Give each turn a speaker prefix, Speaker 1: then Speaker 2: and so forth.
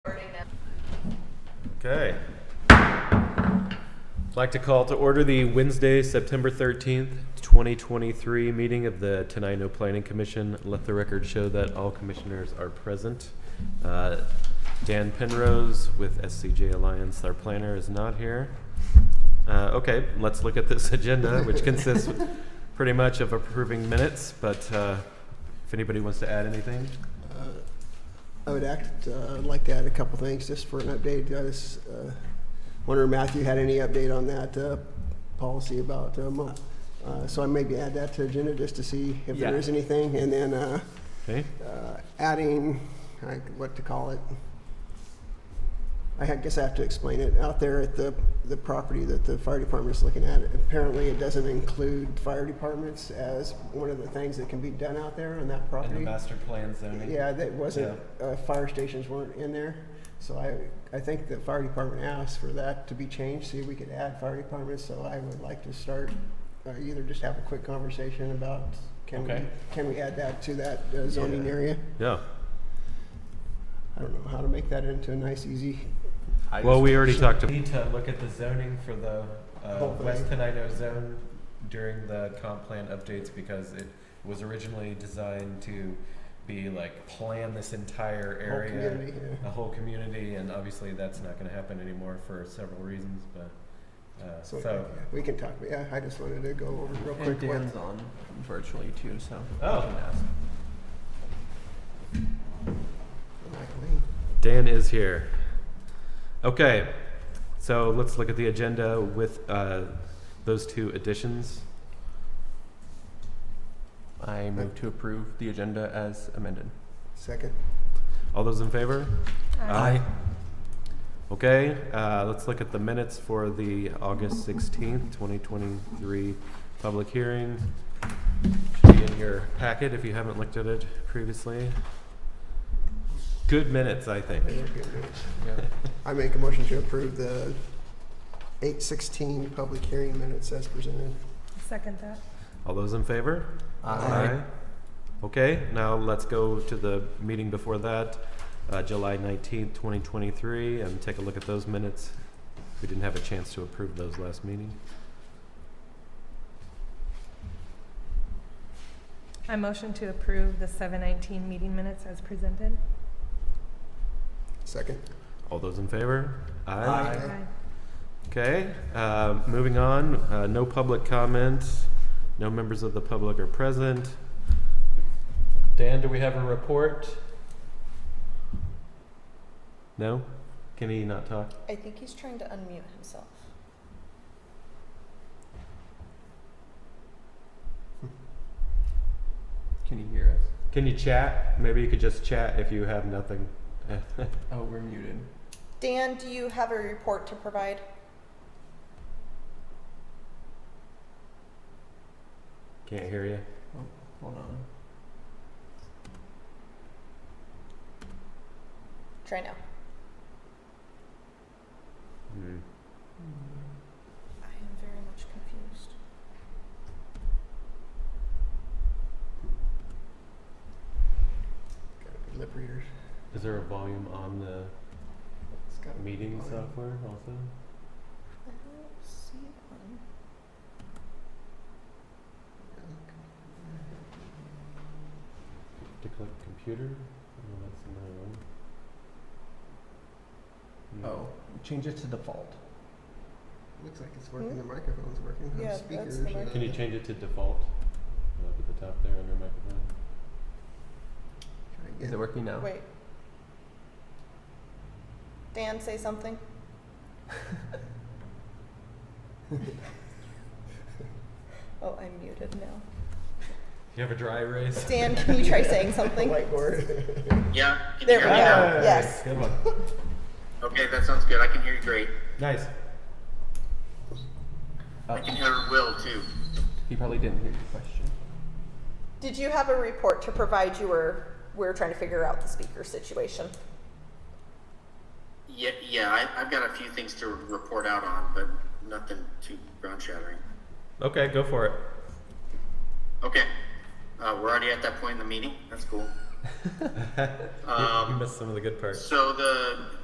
Speaker 1: Okay. I'd like to call to order the Wednesday, September 13th, 2023 meeting of the Tenino Planning Commission. Let the record show that all commissioners are present. Uh, Dan Penrose with SCJ Alliance, our planner, is not here. Uh, Okay, let's look at this agenda, which consists pretty much of approving minutes, but uh, if anybody wants to add anything?
Speaker 2: Uh, I would act, uh, I'd like to add a couple things just for an update. I just uh, wonder, Matthew, had any update on that uh, policy about, uh, mo- uh, so I maybe add that to agenda just to see if there
Speaker 3: Yeah.
Speaker 2: is anything. And then uh,
Speaker 1: Okay,
Speaker 2: uh, adding, like, what to call it? I ha- guess I have to explain it. Out there at the, the property that the fire department is looking at, apparently it doesn't include fire departments as one of the things that can be done out there on that property.
Speaker 1: and the master plan zoning?
Speaker 2: Yeah, that wasn't, uh, fire stations weren't in there, so I, I think the fire department asked for that to be changed, see if we could add fire departments, so I would like to start, uh, either just have a quick conversation about, can we,
Speaker 1: Okay.
Speaker 2: can we add that to that uh, zoning
Speaker 3: Yeah.
Speaker 2: area?
Speaker 1: Yeah.
Speaker 2: I don't know how to make that into a nice, easy,
Speaker 3: I
Speaker 1: Well,
Speaker 3: just-
Speaker 1: we already talked. Need to look at the zoning for the uh,
Speaker 2: Hopefully.
Speaker 1: West Tenino zone during the comp plan updates because it was originally designed to be like plan this entire
Speaker 2: whole
Speaker 1: area,
Speaker 2: community here.
Speaker 1: a whole community, and obviously that's not going to happen anymore for several reasons. But uh,
Speaker 2: So,
Speaker 1: so,
Speaker 2: yeah, we can talk, yeah, I just wanted to go over real
Speaker 3: And
Speaker 2: quick what,
Speaker 3: Dan's on virtually too, so. I
Speaker 1: Oh.
Speaker 3: can ask.
Speaker 1: Dan is here. Okay, so let's look at the agenda with uh, those two additions.
Speaker 3: I move to approve the agenda as amended.
Speaker 2: second,
Speaker 1: All those in favor? Okay, uh, let's look at the minutes for the August sixteenth, twenty twenty-three public hearing. Should be in your packet if you haven't looked at it previously. Good minutes, I think.
Speaker 2: They were good minutes.
Speaker 3: Yep.
Speaker 2: I make a motion to approve the eight sixteen public hearing minutes as presented.
Speaker 4: Second that.
Speaker 1: All those in favor?
Speaker 2: Aye.
Speaker 1: Okay, now let's go to the meeting before that, uh, July nineteenth, twenty twenty-three, and take a look at those minutes. We didn't have a chance to approve those last meeting.
Speaker 4: I motion to approve the seven nineteen meeting minutes as presented.
Speaker 2: Second.
Speaker 1: All those in favor?
Speaker 3: Aye.
Speaker 2: Aye.
Speaker 1: Okay, uh, moving on, uh, no public comment, no members of the public are present. Dan, do we have a report? No? Can he not talk?
Speaker 5: I think he's trying to unmute himself.
Speaker 3: Can you hear us?
Speaker 1: Can you chat? Maybe you could just chat if you have nothing.
Speaker 3: Oh, we're muted.
Speaker 5: Dan, do you have a report to provide?
Speaker 1: Can't hear you.
Speaker 3: Hold on.
Speaker 5: Try now.
Speaker 1: Hmm.
Speaker 5: I am very much confused.
Speaker 2: Gotta be Lip readers.
Speaker 1: Is there a volume on the
Speaker 2: It's gotta be
Speaker 1: meeting
Speaker 2: volume.
Speaker 1: software also?
Speaker 5: I don't see one.
Speaker 1: To click computer? No, that's another one. No.
Speaker 3: Oh, change it to default.
Speaker 2: Looks like it's working, the microphone's working,
Speaker 5: Hmm? Yeah,
Speaker 2: the
Speaker 5: that's the
Speaker 2: speakers. uh,
Speaker 5: microphone.
Speaker 1: Can you change it to default? Up at the top there under microphone.
Speaker 3: Is it working now?
Speaker 5: Wait. Dan, say something. oh, I'm muted now.
Speaker 1: Do you have a dry erase?
Speaker 5: Dan, can you try saying something?
Speaker 2: Whiteboard.
Speaker 6: Yeah. Can
Speaker 5: There
Speaker 6: you
Speaker 5: we
Speaker 6: hear me now?
Speaker 5: go. Yes.
Speaker 1: Good one.
Speaker 6: Okay, that sounds good. I can hear you great.
Speaker 1: Nice.
Speaker 3: Oh,
Speaker 6: I can hear Will too.
Speaker 3: he probably didn't hear your question.
Speaker 5: Did you have a report to provide? You were we were trying to figure out the speaker situation.
Speaker 6: Yeah, yeah. I, I've got a few things to report out on, but nothing too ground shattering.
Speaker 1: Okay, go for it.
Speaker 6: Okay. Uh, we're already at that point in the meeting. That's cool.
Speaker 1: You
Speaker 6: Um,
Speaker 1: missed some of the good parts.
Speaker 6: so the